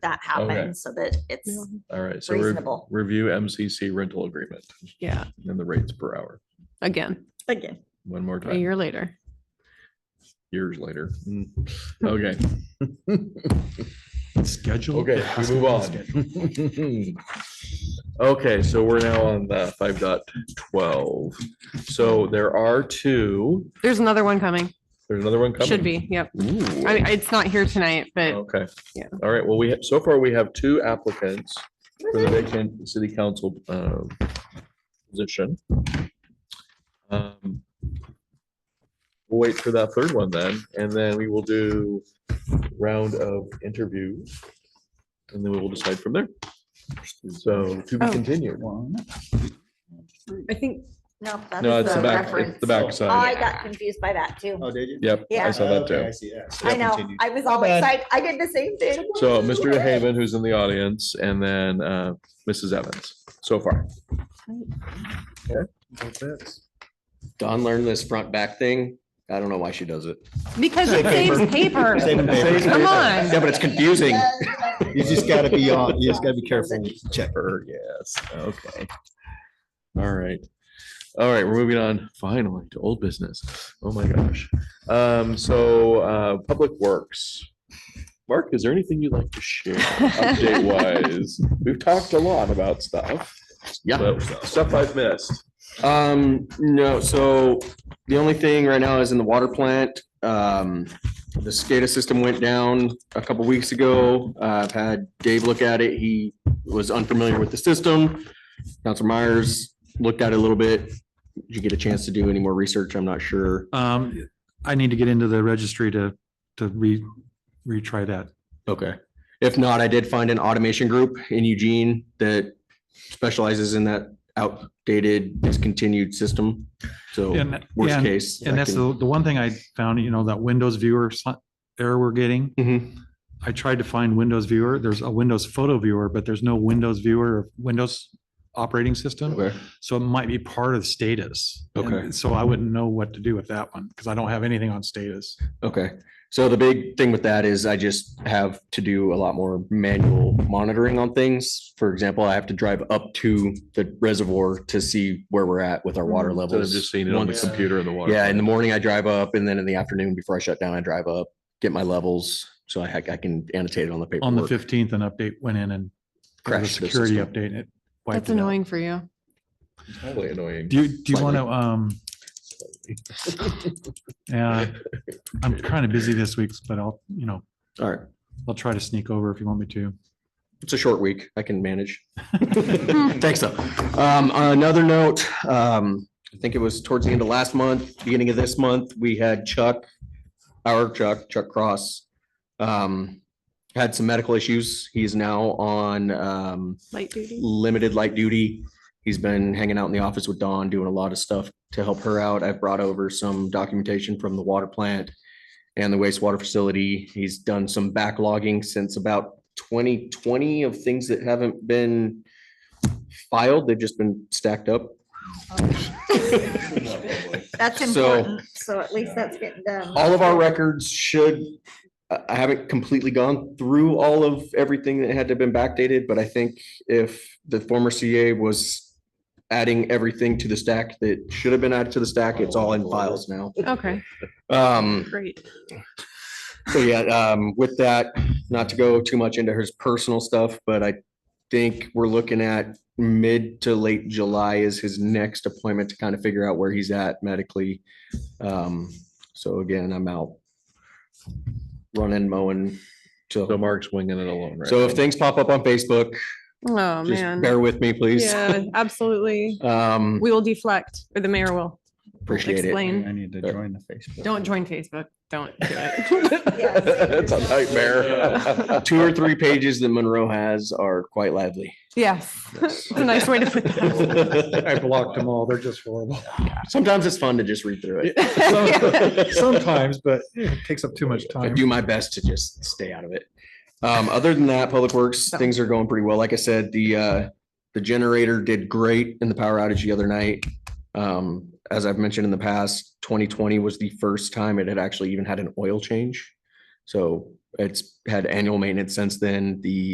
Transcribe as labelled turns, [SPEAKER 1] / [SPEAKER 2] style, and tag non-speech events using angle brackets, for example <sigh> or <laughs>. [SPEAKER 1] that happen so that it's,
[SPEAKER 2] All right, so re-
[SPEAKER 1] Reasonable.
[SPEAKER 2] review MCC rental agreement
[SPEAKER 3] Yeah,
[SPEAKER 2] and the rates per hour.
[SPEAKER 3] again,
[SPEAKER 1] again,
[SPEAKER 2] One more
[SPEAKER 3] a
[SPEAKER 2] time,
[SPEAKER 3] year later.
[SPEAKER 2] years later.
[SPEAKER 3] <laughs>
[SPEAKER 2] Mm. Okay.
[SPEAKER 4] Schedule.
[SPEAKER 2] Okay, we move on. <laughs> Okay, so we're now on the five dot twelve. So there are two,
[SPEAKER 3] There's another one coming.
[SPEAKER 2] there's another one coming. Oh.
[SPEAKER 3] Should be. Yep.
[SPEAKER 2] Ooh.
[SPEAKER 3] I, it's not here tonight, but
[SPEAKER 2] Okay.
[SPEAKER 3] Yeah.
[SPEAKER 2] All right, well, we, have so far we have two applicants for the vacant city council um, position. Um, We'll Wait for that third one then, and then we will do round of interviews. And then we will decide from there. So to be
[SPEAKER 3] Oh.
[SPEAKER 2] continued.
[SPEAKER 3] I think
[SPEAKER 1] no. that
[SPEAKER 2] No,
[SPEAKER 1] is
[SPEAKER 2] it's the back,
[SPEAKER 1] reference. Oh,
[SPEAKER 2] it's the back
[SPEAKER 1] I
[SPEAKER 2] side.
[SPEAKER 1] got confused by that too.
[SPEAKER 4] Oh, did you?
[SPEAKER 2] Yep, I
[SPEAKER 1] Yeah.
[SPEAKER 2] saw that
[SPEAKER 4] Okay,
[SPEAKER 2] too.
[SPEAKER 4] I see, yeah. So
[SPEAKER 1] I
[SPEAKER 4] yeah,
[SPEAKER 1] know,
[SPEAKER 4] continue.
[SPEAKER 1] I was always
[SPEAKER 4] bad.
[SPEAKER 1] like, I did the same thing.
[SPEAKER 2] So Mr. Haven, who's in the audience, and then uh, Mrs. Evans, so far.
[SPEAKER 5] Don learned this front back thing. I don't know why she does it.
[SPEAKER 3] because it saves paper. <laughs>
[SPEAKER 4] Saving paper.
[SPEAKER 3] Come on.
[SPEAKER 5] Yeah, but it's confusing.
[SPEAKER 4] You just gotta be on, you just gotta be careful. when you Check.
[SPEAKER 2] Pepper, yes, okay. All right. All right, we're moving on finally to old business. Oh my gosh. Um, so, uh, Public Works. Mark, is there anything you'd like to share update <laughs> wise? We've talked a lot about stuff.
[SPEAKER 5] Yeah.
[SPEAKER 2] but Stuff I've missed.
[SPEAKER 5] Um, no, so the only thing right now is in the water plant. Um, the SCADA system went down a couple weeks ago. Uh, I've had Dave look at it. He was unfamiliar with the system. Counselor Myers looked at it a little bit. Did you get a chance to do any more research? I'm not sure.
[SPEAKER 4] Um, I need to get into the registry to, to re, retry that.
[SPEAKER 5] Okay. If not, I did find an automation group in Eugene that specializes in that outdated discontinued system. So
[SPEAKER 4] And-
[SPEAKER 5] Oh, worst
[SPEAKER 4] and-
[SPEAKER 5] case.
[SPEAKER 4] And that's the, the one thing I found, you know, that Windows viewer si- error we're getting.
[SPEAKER 5] Mhm.
[SPEAKER 4] I tried to find Windows viewer. There's a Windows photo viewer, but there's no Windows viewer, of Windows operating system.
[SPEAKER 5] Okay.
[SPEAKER 4] So it might be part of status. And
[SPEAKER 5] Okay.
[SPEAKER 4] So I wouldn't know what to do with that one because I don't have anything on status.
[SPEAKER 5] Okay. So the big thing with that is I just have to do a lot more manual monitoring on things. For example, I have to drive up to the reservoir to see where we're at with our water
[SPEAKER 2] Instead of
[SPEAKER 5] levels.
[SPEAKER 2] Mm-hmm. just seeing it on the
[SPEAKER 5] Once-
[SPEAKER 2] computer in the water.
[SPEAKER 5] Yeah, in the morning I drive up and then in the afternoon before I shut down, I drive up, get my levels. So I, ha- I can annotate it on the paper.
[SPEAKER 4] On the fifteenth, an update went in and there was a
[SPEAKER 5] Crashed the
[SPEAKER 4] security
[SPEAKER 5] system.
[SPEAKER 4] update. and it wiped
[SPEAKER 3] That's
[SPEAKER 4] it out.
[SPEAKER 3] annoying for you.
[SPEAKER 2] Totally annoying.
[SPEAKER 4] Do you, do you want to,
[SPEAKER 5] Slightly.
[SPEAKER 4] um, <laughs> yeah, I'm kind of busy this week, but I'll, you know,
[SPEAKER 5] All right.
[SPEAKER 4] I'll try to sneak over if you want me to.
[SPEAKER 5] It's a short week. I can manage. Thanks though. Um, on another note, um, I think it was towards the end of last month, beginning of this month, we had Chuck, our Chuck, Chuck Cross, um, had some medical issues. He's now on, um,
[SPEAKER 3] Light duty.
[SPEAKER 5] limited light duty. He's been hanging out in the office with Dawn, doing a lot of stuff to help her out. I've brought over some documentation from the water plant and the wastewater facility. He's done some backlogging since about twenty twenty of things that haven't been filed. They've just been stacked up.
[SPEAKER 1] <laughs> That's
[SPEAKER 5] So-
[SPEAKER 1] important. So at least that's getting done.
[SPEAKER 5] all of our records should, I I haven't completely gone through all of everything that had to been backdated, but I think if the former CA was adding everything to the stack that should have been added to the stack, it's all in files now.
[SPEAKER 3] Okay,
[SPEAKER 5] Um,
[SPEAKER 3] great.
[SPEAKER 5] so yeah, um, with that, not to go too much into his personal stuff, but I think we're looking at mid to late July is his next appointment to kind of figure out where he's at medically. Um, so again, I'm out running, mowing.
[SPEAKER 2] So
[SPEAKER 5] So,
[SPEAKER 2] Mark's winging it alone, right?
[SPEAKER 5] so if things pop up on Facebook,
[SPEAKER 3] Oh,
[SPEAKER 5] just
[SPEAKER 3] man.
[SPEAKER 5] bear with me, please.
[SPEAKER 3] Yeah, absolutely.
[SPEAKER 5] Um,
[SPEAKER 3] We will deflect, or the mayor will.
[SPEAKER 5] appreciate it.
[SPEAKER 3] Explain.
[SPEAKER 6] I need to
[SPEAKER 5] Sure.
[SPEAKER 6] join the Facebook.
[SPEAKER 3] Don't join Facebook. Don't do it.
[SPEAKER 2] <laughs> It's a <laughs> nightmare.
[SPEAKER 5] Two or three pages that Monroe has are quite lively.
[SPEAKER 3] Yes, <laughs> it's a nice way to put <laughs>
[SPEAKER 4] I blocked them all. They're just <laughs> horrible.
[SPEAKER 5] Sometimes it's fun to just read through it.
[SPEAKER 3] that.
[SPEAKER 4] Sometimes, but it takes up too much
[SPEAKER 5] I
[SPEAKER 4] time.
[SPEAKER 5] do my best to just stay out of it. Um, other than that, Public Works, things are going pretty well. Like I said, the, uh, the generator did great in the power outage the other night. Um, as I've mentioned in the past, twenty twenty was the first time it had actually even had an oil change. So it's had annual maintenance since then. The